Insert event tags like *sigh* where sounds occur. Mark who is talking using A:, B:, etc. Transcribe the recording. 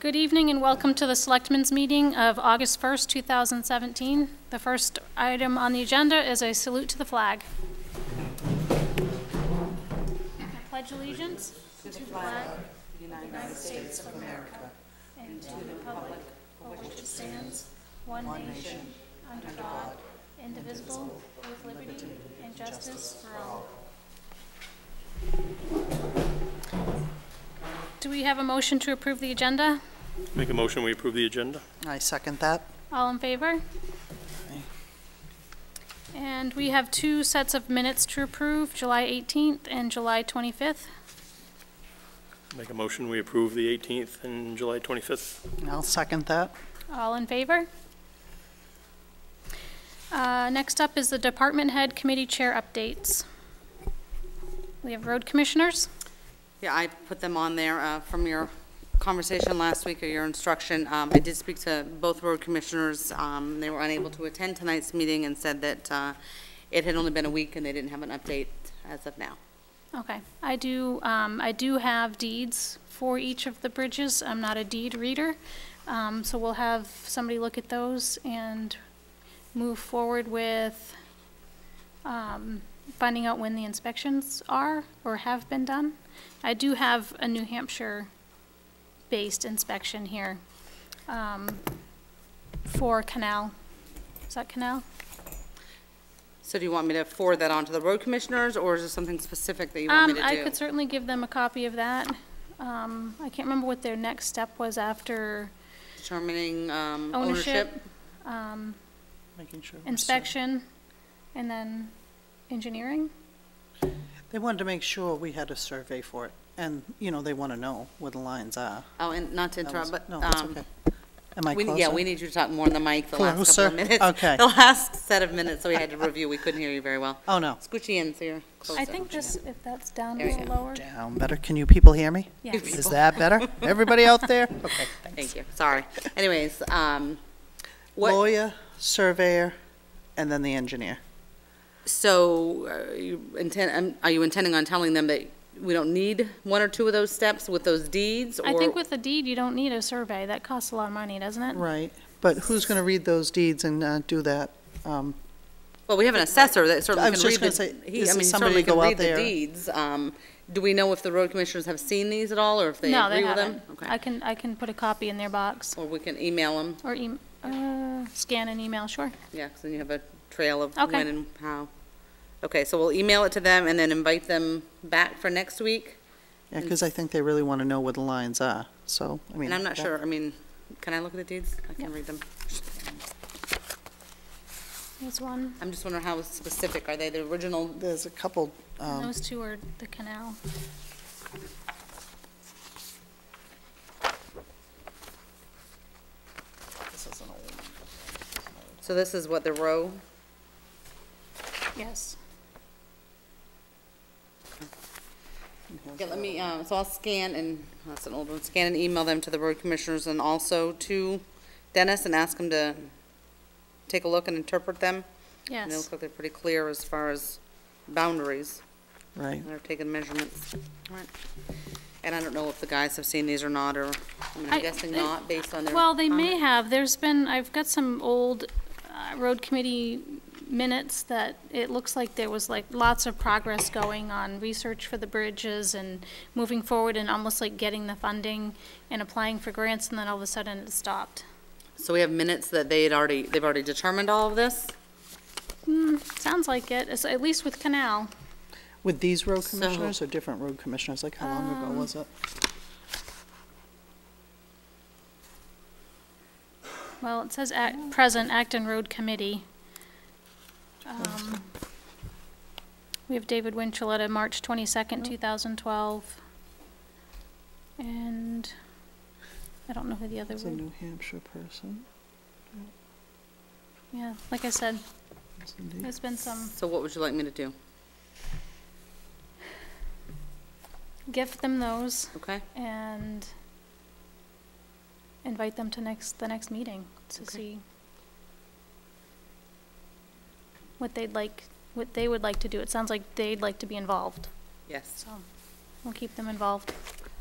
A: Good evening and welcome to the Selectmen's Meeting of August 1st, 2017. The first item on the agenda is a salute to the flag. I pledge allegiance to the flag of the United States of America and to the republic for which it stands, one nation, under God, indivisible, with liberty and justice for all. Do we have a motion to approve the agenda?
B: Make a motion, we approve the agenda?
C: I second that.
A: All in favor? And we have two sets of minutes to approve, July 18th and July 25th.
B: Make a motion, we approve the 18th and July 25th?
C: I'll second that.
A: All in favor? Uh, Next up is the Department Head Committee Chair updates. We have road commissioners.
D: Yeah, I put them on there uh, from your conversation last week or your instruction. Um, I did speak to both road commissioners. Um, They were unable to attend tonight's meeting and said that uh, it had only been a week and they didn't have an update as of now.
A: Okay, I do, um, I do have deeds for each of the bridges. I'm not a deed reader. Um, so we'll have somebody look at those and move forward with, um, finding out when the inspections are or have been done. I do have a New Hampshire-based inspection here, um, for Canal. Is that Canal?
D: So do you want me to forward that on to the road commissioners or is there something specific that you want me to do?
A: Um, I could certainly give them a copy of that. Um, I can't remember what their next step was after
D: Determining um, ownership?
A: ownership, um,
C: Making sure. we're safe.
A: inspection, and then engineering.
C: They wanted to make sure we had a survey for it, and, you know, they want to know where the lines are.
D: Oh, and not to
C: That
D: interrupt,
C: was-
D: but.
C: No, it's
D: um,
C: okay. Am I
D: we-
C: closer?
D: Yeah, we need you to talk more on the mic the last couple
C: Closer?
D: of minutes.
C: Okay.
D: *laughs* The last set of minutes that we had to review, we couldn't hear you very well.
C: Oh, no.
D: Scoochie in so you're closer.
A: I think this, if that's down a
D: There you
A: little
D: go.
A: lower.
C: Down better. Can you people hear me?
A: Yes.
C: Is that better? Everybody out there?
D: *laughs*
C: Okay, thanks.
D: Thank you, sorry. Anyways, um, what,
C: Lawyer, surveyor, and then the engineer.
D: so are you intend, um, are you intending on telling them that we don't need one or two of those steps with those deeds?
A: I
D: or-
A: think with the deed, you don't need a survey. That costs a lot of money, doesn't it?
C: Right, but who's going to read those deeds and uh, do that? Um,
D: Well, we have an assessor that certainly
C: I was
D: can read
C: just
D: the.
C: gonna say,
D: he-
C: is
D: I
C: it
D: mean, he
C: somebody
D: certainly can
C: go out
D: read the
C: there?
D: Deeds, um, do we know if the road commissioners have seen these at all, or if they
A: No, they
D: agree with them?
A: haven't. I
D: Okay,
A: can, I can put a copy in their box,
D: or we can email them,
A: or em- uh, scan an email, sure.
D: yeah, because then you have a trail of
A: Okay.
D: when and how. Okay, so we'll email it to them and then invite them back for next week?
C: Yeah, because I think they really want to know where the lines are, so, I mean.
D: And I'm not
C: that-
D: sure, I mean, can I look at the deeds? I can read them.
A: There's one,
D: I'm just wondering how specific, are they the original?
C: There's a couple, um,
A: those two are the canal.
C: this is an old-
D: So this is what, the row?
A: Yes.
D: Yeah, let me, uh, so I'll scan and, that's an old one, scan and email them to the road commissioners and also to Dennis and ask him to take a look and interpret them. And they
A: Yes.
D: look like they're pretty clear as far as boundaries,
C: right.
D: and they've taken measurements. All right. And I don't know if the guys have seen these or not, or, I mean,
A: I-
D: I'm guessing
A: I-
D: not, based on their.
A: Well, they
D: comment.
A: may have. There's been, I've got some old uh, road committee minutes that it looks like there was like lots of progress going on research for the bridges and moving forward and almost like getting the funding and applying for grants, and then all of a sudden it stopped.
D: So we have minutes that they had already, they've already determined all of this?
A: Sounds like it, It's- at least with Canal.
C: With these road
D: So-
C: commissioners or different road commissioners? Like, how long ago was it?
A: Well, it says act, present Acton Road Committee. Um, We have David Winchelletta, March twenty-second, two thousand twelve. And I don't know who the other
C: It's a
A: were.
C: New Hampshire person.
A: Yeah, like I said,
C: Yes, indeed.
A: there's been some,
D: So what would you like me to do?
A: gift them those
D: Okay?
A: and invite them to next, the next meeting to
D: Okay.
A: see what they'd like, what they would like to do. It sounds like they'd like to be involved.
D: Yes.
A: So we'll keep them involved.